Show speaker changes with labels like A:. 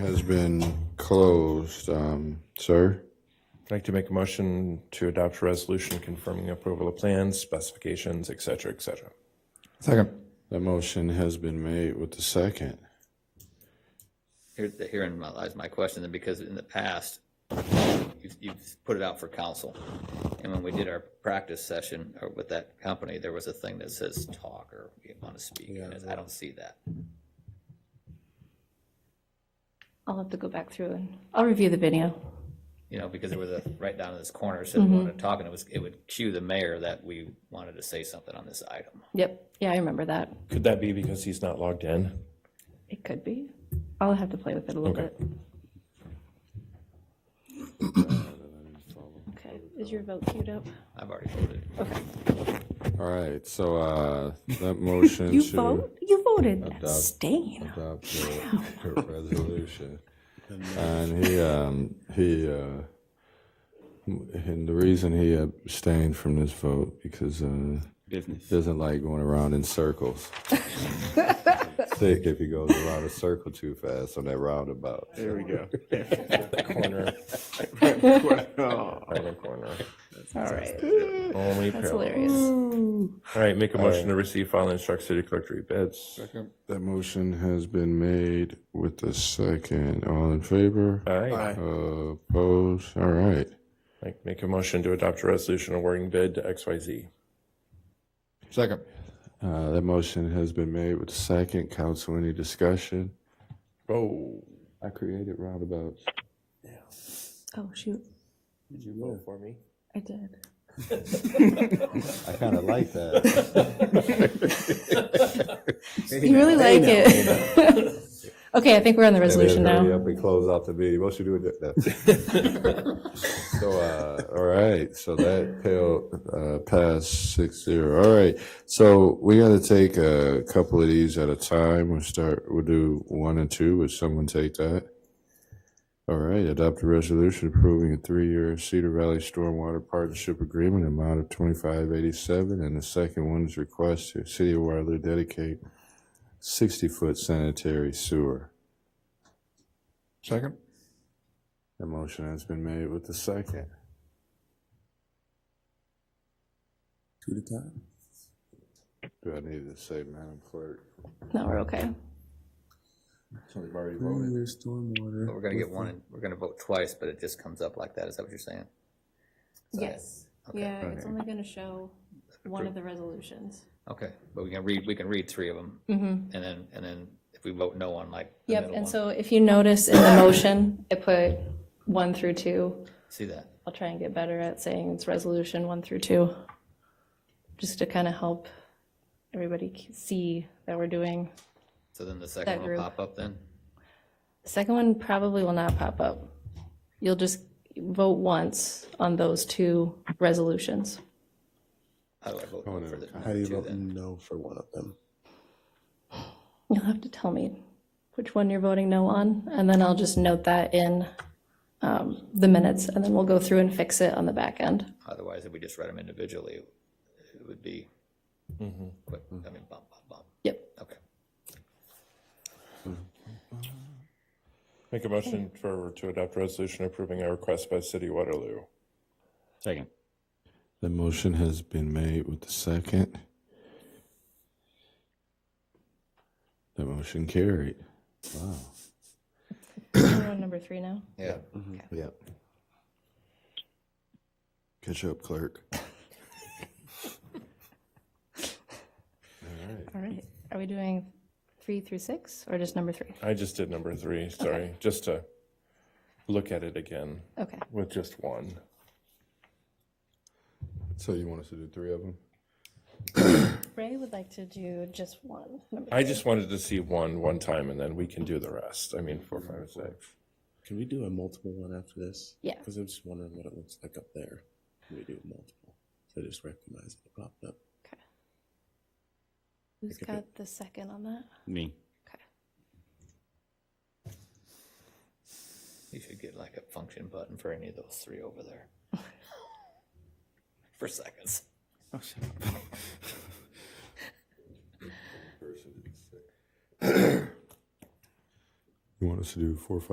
A: has been closed. Um, sir,
B: I'd like to make a motion to adopt a resolution confirming approval of plans, specifications, et cetera, et cetera.
C: Second.
A: the motion has been made with the second.
D: Here, herein my- lies my question, then, because in the past, you've, you've put it out for council. And when we did our practice session uh, with that company, there was a thing that says talk or you want to speak, and I don't see that.
E: I'll have to go back through and I'll review the video.
D: You know, because there was a, right down in this corner, it said
E: Mm-hmm.
D: we wanted to talk, and it was, it would cue the mayor that we wanted to say something on this item.
E: Yep. Yeah, I remember that.
B: Could that be because he's not logged in?
E: It could be. I'll have to play with it a little
B: Okay.
E: bit. Okay. Is your vote queued up?
D: I've already voted.
A: All right, so uh, that motion
F: You
A: to
F: vote. You voted abstain.
A: adopt the the resolution, and he um, he uh, and the reason he abstained from this vote because uh, business doesn't like going around in circles. Sick if he goes around a circle too fast on that roundabout.
G: There we go.
B: Corner, corner, corner.
E: All right.
B: Only
E: That's
B: parallel.
E: hilarious.
B: All right, make a motion to receive, file, and instruct city clerk to read bids.
A: That motion has been made with the second. All in favor?
B: All right,
A: Uh, Opposed? All right.
B: Like, make a motion to adopt a resolution awarding bid to XYZ.
C: Second.
A: Uh, That motion has been made with the second. Council, any discussion?
B: Oh.
A: I created roundabouts.
F: Oh shoot,
B: Did you vote for me?
F: I did.
A: I kind of like that.
E: You really like it. Okay, I think we're on the resolution
A: Hurry
E: now.
A: up and close out the meeting. What you do with that? So, uh, all right, so that failed, uh, passed six zero. All right, so we gotta take a couple of these at a time. We'll start, we'll do one and two. Would someone take that? All right, adopt a resolution approving a three-year Cedar Valley Stormwater Partnership Agreement amount of twenty-five eighty-seven. And the second one is request to City of Waterloo dedicate sixty-foot sanitary sewer.
C: Second.
A: The motion has been made with the second.
C: Two to time.
A: Do I need to say, Madam Clerk?
E: No, we're okay.
A: We've already
C: Three-year stormwater.
D: But we're gonna get one, and we're gonna vote twice, but it just comes up like that, is that what you're saying? So-
F: Yes.
D: Okay.
F: Yeah, it's only going to show one of the resolutions.
D: Okay, but we can read, we can read three of them,
E: Mm-hmm.
D: and then, and then if we vote no on like the
E: Yep,
D: middle
E: and
D: one,
E: so if you notice in the motion, I put one through two.
D: see that?
E: I'll try and get better at saying it's resolution one through two, just to kind of help everybody c- see that we're doing.
D: So then the second
E: That
D: one will
E: group.
D: pop up then?
E: Second one probably will not pop up. You'll just vote once on those two resolutions.
D: How do I vote
A: Oh, no,
D: for the
A: how
D: number two then?
G: No for one of them.
E: You'll have to tell me which one you're voting no on, and then I'll just note that in um, the minutes, and then we'll go through and fix it on the back end.
D: Otherwise, if we just read them individually, it would be
B: Mm-hmm.
D: quick,
A: Mm-hmm.
D: I mean, bump, bump, bump,
E: Yep.
D: okay.
B: Make a motion for, to adopt a resolution approving a request by City of Waterloo.
H: Second.
A: The motion has been made with the second. The motion carried. Wow.
E: We're on number three now.
D: Yeah,
A: Yep. Catch up, clerk.
E: All right. Are we doing three through six, or just number three?
B: I just did number three, sorry, just to look at it again
E: Okay.
B: with just one.
A: So you want us to do three of them?
E: Ray would like to do just one. number-
B: I just wanted to see one, one time, and then we can do the rest. I mean, four, five, six.
G: Can we do a multiple one after this?
E: Yeah.
G: Because I'm just wondering what it looks like up there. Can we do multiple? So I just recognize it popped up.
E: Okay. Who's got the second on that?
H: Me.
E: Okay.
D: you should get like a function button for any of those three over there. For seconds.
A: You want us to do four, five?